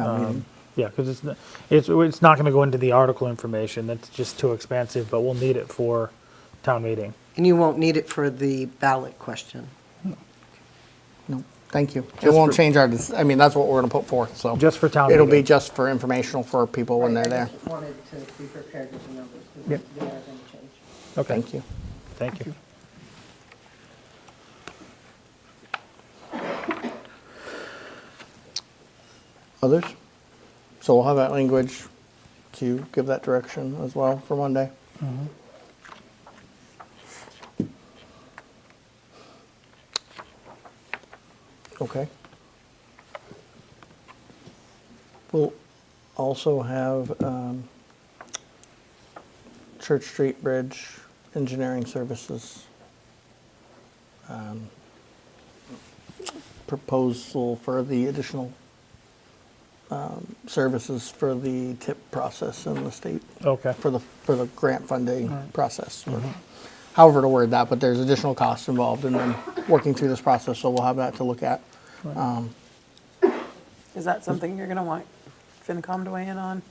Um, Yeah, because it's, n- it's, it's not going to go into the article information, that's just too expensive, but we'll need it for town meeting. And you won't need it for the ballot question. No, thank you. It Just won't for- change our, dec- I mean, that's what we're going to put forth, so. Just for town It'll be meeting. just for informational for people when they're there. Wanted to be prepared with the numbers, Yep. they are going to change. Okay. Thank you. Thank you. Others? So we'll have that language to give that direction as well for Monday. Okay. We'll also have um, Church Street Bridge Engineering Services um, proposal for the additional um, services for the tip process in the state, Okay, for the, for the grant funding process. or However to word that, but there's additional costs involved in then working through this process, so we'll have that to look at. Is that something you're gonna want FinCom to weigh in on?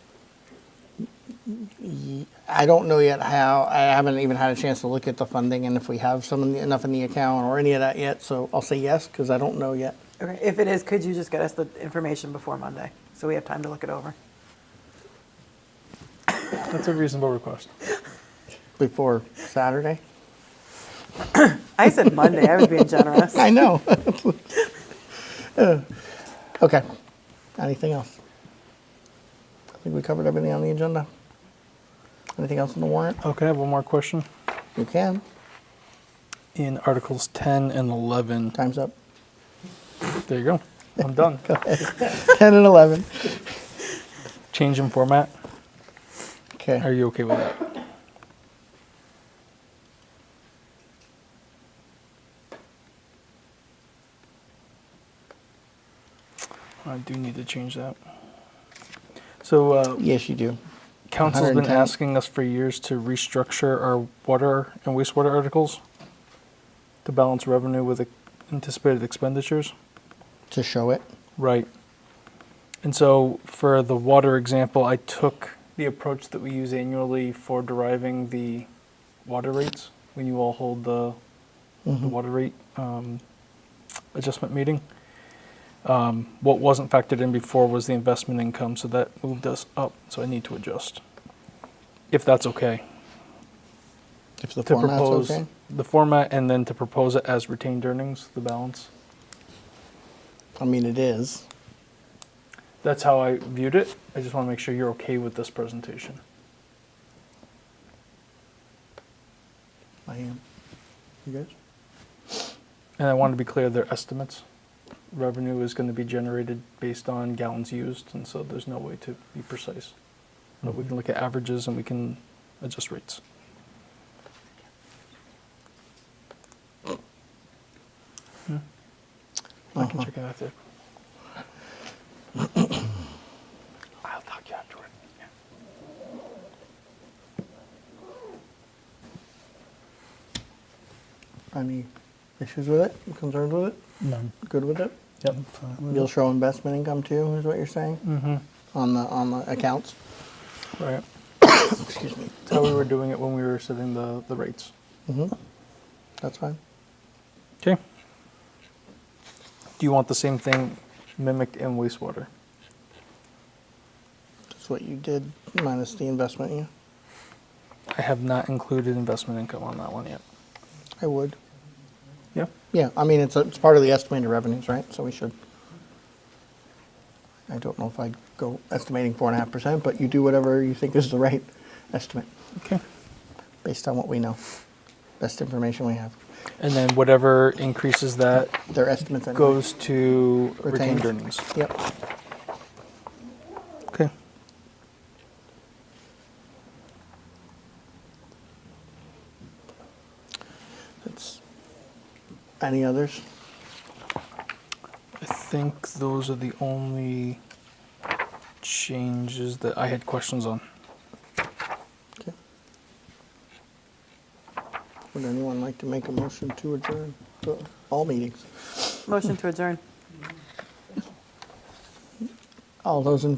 I don't know yet how, I haven't even had a chance to look at the funding and if we have some, in the- enough in the account or any of that yet, so I'll say yes, because I don't know yet. Okay, if it is, could you just get us the information before Monday, so we have time to look it over? That's a reasonable request. Before Saturday? I said Monday, I was being generous. I know. Uh, Okay. Anything else? I think we covered everything on the agenda. Anything else on the warrant? Okay, I have one more question. You can. In Articles 10 and 11, Time's up. there you go. I'm done. 10 and 11. Change in format. Are Okay. you okay with that? I do need to change that. So, uh, Yes, you do. Council's been 110. asking us for years to restructure our water and wastewater articles to balance revenue with anticipated expenditures. To show it. Right. And so for the water example, I took the approach that we use annually for deriving the water rates when you all hold the, the Mm-hmm. water rate um, adjustment meeting. Um, what wasn't factored in before was the investment income, so that moved us up. So I need to adjust, if that's okay, If the to format's propose okay. the format and then to propose it as retained earnings, the balance. I mean, it is. That's how I viewed it. I just want to make sure you're okay with this presentation. I am. You guys? And I want to be clear, their estimates. Revenue is going to be generated based on gallons used, and so there's no way to be precise. But we can look at averages and we can adjust rates. Hmm? I Uh-huh. can check it out there. I'll talk you afterward. Yeah. Any issues with it? Concerns with it? none. Good with it? Yep. You'll show investment income too, is what you're saying? Mm-hmm. On the, on the accounts? Right. Excuse me. That's how we were doing it when we were setting the, the rates. Mm-hmm. That's fine. Okay. Do you want the same thing mimicked in wastewater? That's what you did, minus the investment, yeah. I have not included investment income on that one yet. I would. Yeah. Yeah, I mean, it's, a- it's part of the estimated revenues, right? So we should. I don't know if I go estimating four and a half percent, but you do whatever you think is the right estimate, Okay. based on what we know. Best information we have. And then whatever increases that Their estimates anyway. goes to retained Retained. earnings. Yep. Okay. That's- Any others? I think those are the only changes that I had questions on. Okay. Would anyone like to make a motion to adjourn to all meetings? Motion to adjourn. All those in